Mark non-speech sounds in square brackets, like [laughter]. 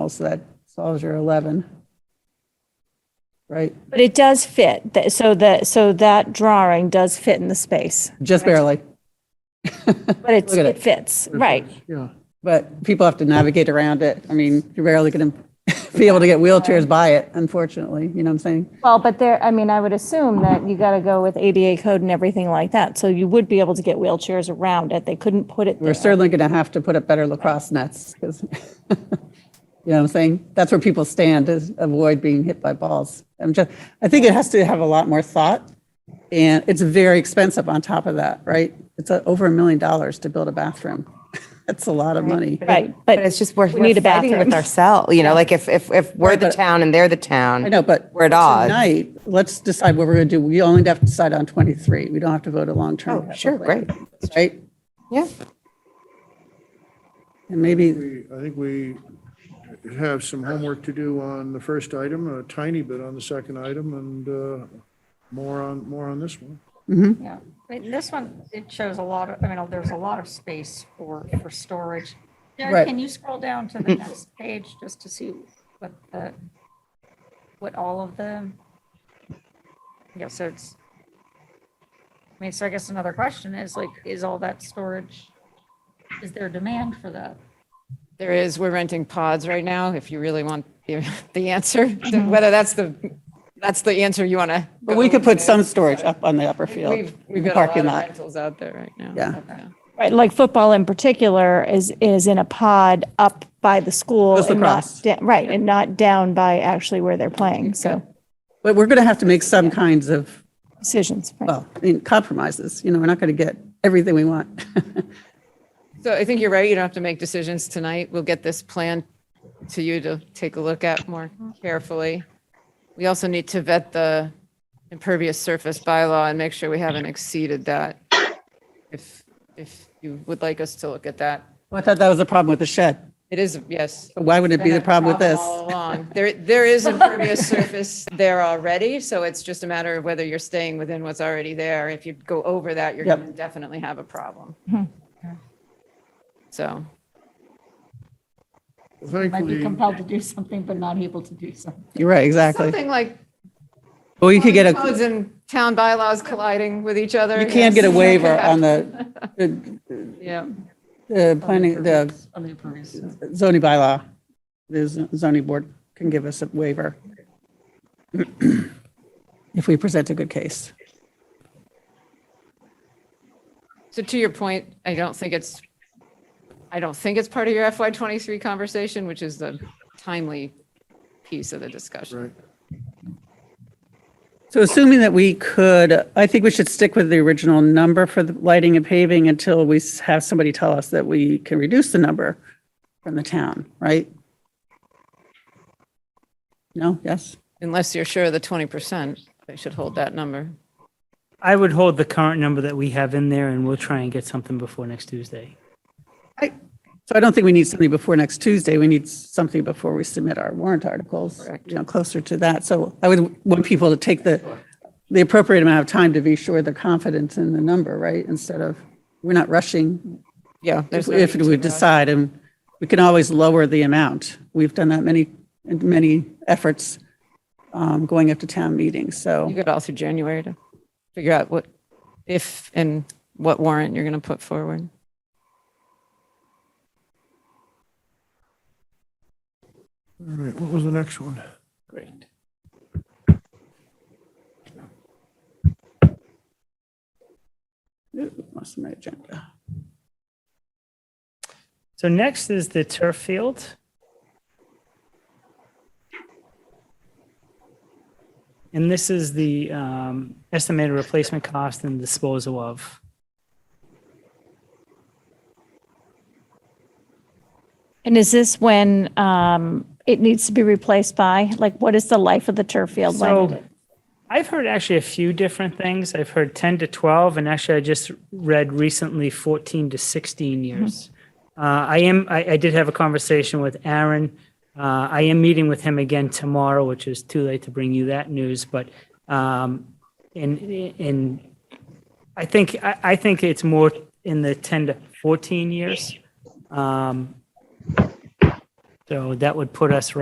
else, that solves your 11. Right? But it does fit, th- so that, so that drawing does fit in the space, Just barely. but it's, Look at it it. fits, right. Yeah. But people have to navigate around it. I mean, you're barely going to [laughs] be able to get wheelchairs by it, unfortunately, you know what I'm saying? Well, but there, I mean, I would assume that you got to go with ADA code and everything like that, so you would be able to get wheelchairs around it, they couldn't put it We're there. certainly going to have to put up better lacrosse nets because, [laughs] you know what I'm saying? That's where people stand is avoid being hit by balls. I'm just, I think it has to have a lot more thought. And it's very expensive on top of that, right? It's uh, over a million dollars to build a bathroom. [laughs] That's a lot of money. Right, But it's but, just we're, We need a we're fighting bathroom. with ourselves, you know, like if, if, if we're the but- town and they're the town. I know, but We're at odds. tonight, let's decide what we're going to do. We only have to decide on 23. We don't have to vote a long-term. Oh, sure, capital plan, Right? Yeah. And maybe, We- I think we have some homework to do on the first item, a tiny bit on the second item, and uh, more on, more on this one. Yeah, I mean, this one, it shows a lot of, I mean, there's a lot of space for, for storage. Derek, Right. can you scroll down to the next [laughs] page just to see what the, what all of the? Yeah, so it's, I mean, so I guess another question is like, is all that storage, is there demand for that? There is, we're renting pods right now, if you really want the the answer, whether that's the, that's the answer you want to. but we could put some storage up on the upper field. We've, we've got a lot parking of lot. rentals out there right now. Yeah. right, like football in particular is, is in a pod up by the school. Just and not across. da- Right, and not down by actually where they're playing, so But we're going to have to make some kinds of, decisions. right. well, I mean, compromises. You know, we're not going to get everything we want. [laughs] So I think you're right, you don't have to make decisions tonight. We'll get this plan to you to take a look at more carefully. We also need to vet the impervious surface bylaw and make sure we haven't exceeded that. If, if you would like us to look at that. I thought that was the problem with the shed. It is, yes, But Why would it be the problem with this? all along. There, there is impervious surface there already, so it's just a matter of whether you're staying within what's already there. If you go over that, you're Yep. going to definitely have a problem. So, Might be Thankfully, compelled to do something, but not able to do something. You're right, exactly. something like Well, you could get a, codes and town bylaws colliding with each other. you can get a yes. waiver on the, the- Yeah, [laughs] the planning, the On the impervious. zoning bylaw. The z- zoning board can give us a waiver [clears throat] if we present a good case. so to your point, I don't think it's, I don't think it's part of your FY twenty-three conversation, which is the timely piece of the discussion. right, So assuming that we could, I think we should stick with the original number for the lighting and paving until we s- have somebody tell us that we can reduce the number from the town, right? No, yes? Unless you're sure of the twenty percent, they should hold that number. I would hold the current number that we have in there and we'll try and get something before next Tuesday. I- So I don't think we need something before next Tuesday. We need something before we submit our warrant articles, you know, closer to that. So I would want people to take the, the appropriate amount of time to be sure they're confident in the number, right? Instead of, we're not rushing Yeah. there's if no if need we to rush. decide, and we can always lower the amount. We've done that many, many efforts um, going up to town meetings, You so. got all through January to figure out what, if and what warrant you're going to put forward. all right, what was the next one? Great. Ooh, Lost my agenda. So next is the turf field. And this is the um, estimated replacement cost and disposal of. And is this when um, it needs to be replaced by? Like, what is the life of the turf field? When it- So I've heard actually a few different things. I've heard 10 to 12, and actually I just read recently 14 to 16 Hmm. years. Uh, I am. I, I did have a conversation with Aaron. Uh, I am meeting with him again tomorrow, which is too late to bring you that news. But um, in in I think I, I think it's more in the 10 to 14 years. Um, So that would put us